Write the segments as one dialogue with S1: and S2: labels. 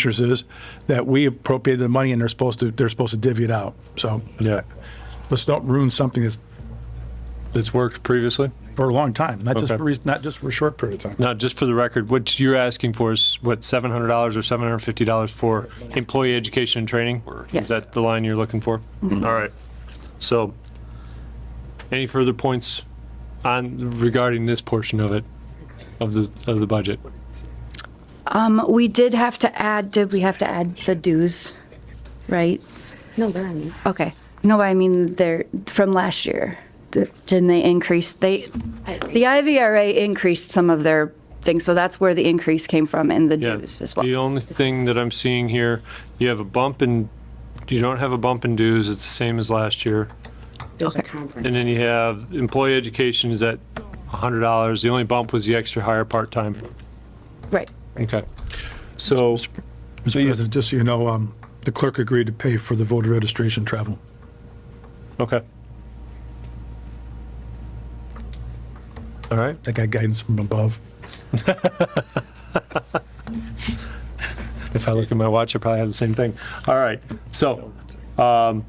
S1: Commissioners is that we appropriated the money and they're supposed to, they're supposed to divvy it out. So
S2: Yeah,
S1: let's not ruin something that's
S2: that's worked previously.
S1: for a long time, not just
S2: Okay.
S1: for, re- not just for a short period of time.
S2: Now, just for the record, what you're asking for is what, seven hundred dollars or seven hundred fifty dollars for employee education and training? Is
S3: Yes. Mm-hmm.
S2: that the line you're looking for? All right. So, any further points on regarding this portion of it, of the of the budget?
S3: Um, We did have to add, did we have to add the dues, right?
S4: No, they're on.
S3: Okay. No, I mean, they're from last year. D- Didn't they increase, they, the IVRA increased some of their things, so that's where the increase came from in the
S2: Yeah.
S3: dues as well.
S2: The only thing that I'm seeing here, you have a bump in, you don't have a bump in dues. It's the same as last year.
S4: There's a
S3: Okay.
S4: conference.
S2: And then you have employee education is at hundred dollars. The only bump was the extra hire part-time.
S3: Right.
S2: Okay. So,
S1: Mr. President, just so you know, um, the clerk agreed to pay for the voter registration travel.
S2: okay. All right.
S1: I got guidance from above.
S2: If I look at my watch, I probably have the same thing. All right. So, um,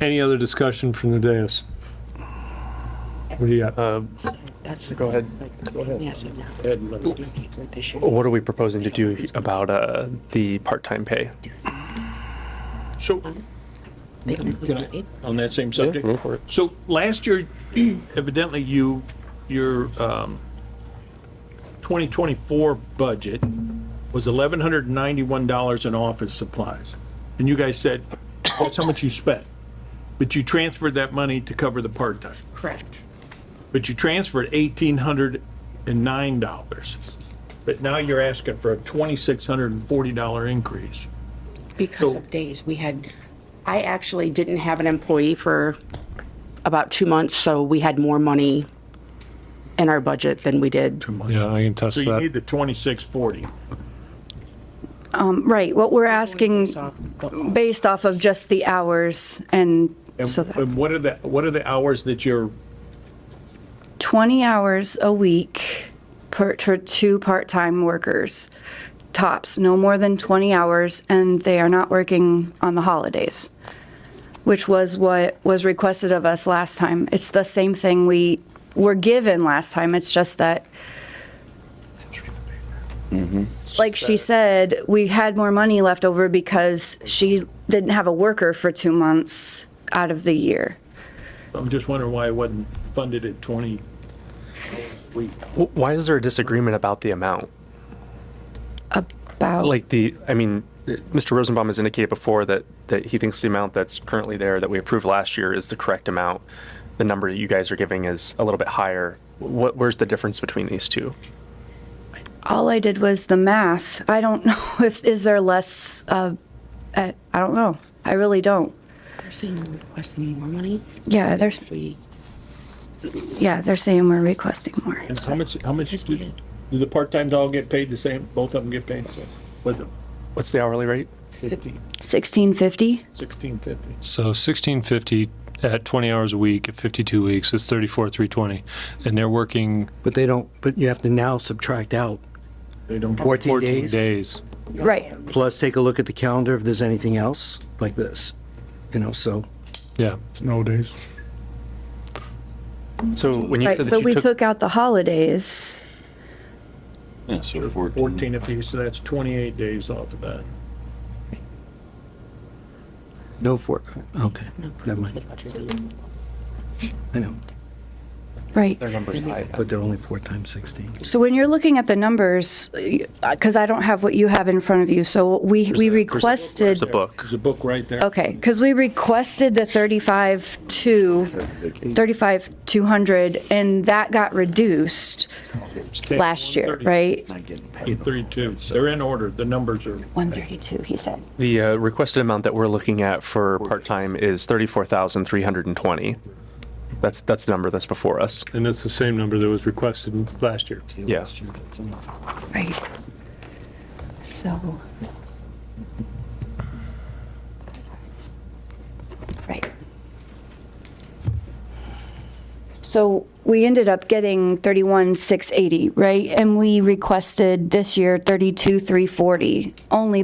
S2: any other discussion from the dais? What do you got?
S5: Go ahead. Go ahead. What are we proposing to do about uh, the part-time pay?
S6: So, on that same subject? So last year, evidently you, your um, 2024 budget was $1,191 in office supplies. And you guys said, that's how much you spent. But you transferred that money to cover the part-time.
S4: Correct.
S6: But you transferred $1,809. But now you're asking for a $2,640 increase.
S4: Because of days, we had, I actually didn't have an employee for about two months, so we had more money in our budget than we did.
S2: Yeah, I can touch
S6: So you need
S2: that.
S6: the 2,640.
S3: Right, what we're asking, based off of just the hours, and
S6: And,
S3: so that's
S6: and what are the what are the hours that you're
S3: 20 hours a week per, for two part-time workers, tops, no more than 20 hours, and they are not working on the holidays, which was what was requested of us last time. It's the same thing we were given last time, it's just that, like she said, we had more money left over because she didn't have a worker for two months out of the year.
S6: I'm just wondering why it wasn't funded at 20 a week.
S5: Wh- Why is there a disagreement about the amount?
S3: About-
S5: Like the, I mean, Mr. Rosenbaum has indicated before that, that he thinks the amount that's currently there that we approved last year is the correct amount. The number that you guys are giving is a little bit higher. What, where's the difference between these two?
S3: All I did was the math. I don't know if, is there less, uh, uh, I don't know. I really don't.
S4: They're saying we're requesting more money.
S3: Yeah, there's,
S4: We,
S3: yeah, they're saying we're requesting more.
S6: And how much, how much, do do the part-times all get paid the same? Both of them get paid the same? With them,
S5: What's the hourly rate?
S6: 15,
S3: 1650?
S6: 1650.
S2: So sixteen fifty at twenty hours a week at fifty-two weeks is thirty-four, three twenty. And they're working
S7: But they don't, but you have to now subtract out
S6: They don't get,
S7: 14
S2: fourteen
S7: days,
S2: days.
S3: Right.
S7: plus take a look at the calendar if there's anything else like this, you know, so.
S2: Yeah.
S1: It's nowadays.
S5: So when you
S3: Right,
S5: said
S3: so
S5: that
S3: we
S5: you took,
S3: took out the holidays.
S8: Yeah, so 14.
S6: 14 apiece, so that's 28 days off of that.
S7: No four, okay, never mind, I know,
S3: Right.
S5: their numbers high.
S7: but they're only four times 16.
S3: So when you're looking at the numbers, because I don't have what you have in front of you, so we, we requested,
S5: There's a book.
S6: There's a book right there.
S3: okay, because we requested the 35 to, 35 200, and that got reduced last year, right?
S8: Not getting paid.
S6: 832. They're in order. The numbers are,
S3: 132, he said.
S5: The uh, requested amount that we're looking at for part-time is 34,320. That's, that's the number that's before us.
S2: And that's the same number that was requested last year.
S5: Yeah.
S3: Right. So. Right. So we ended up getting 31,680, right? And we requested this year 32,340, only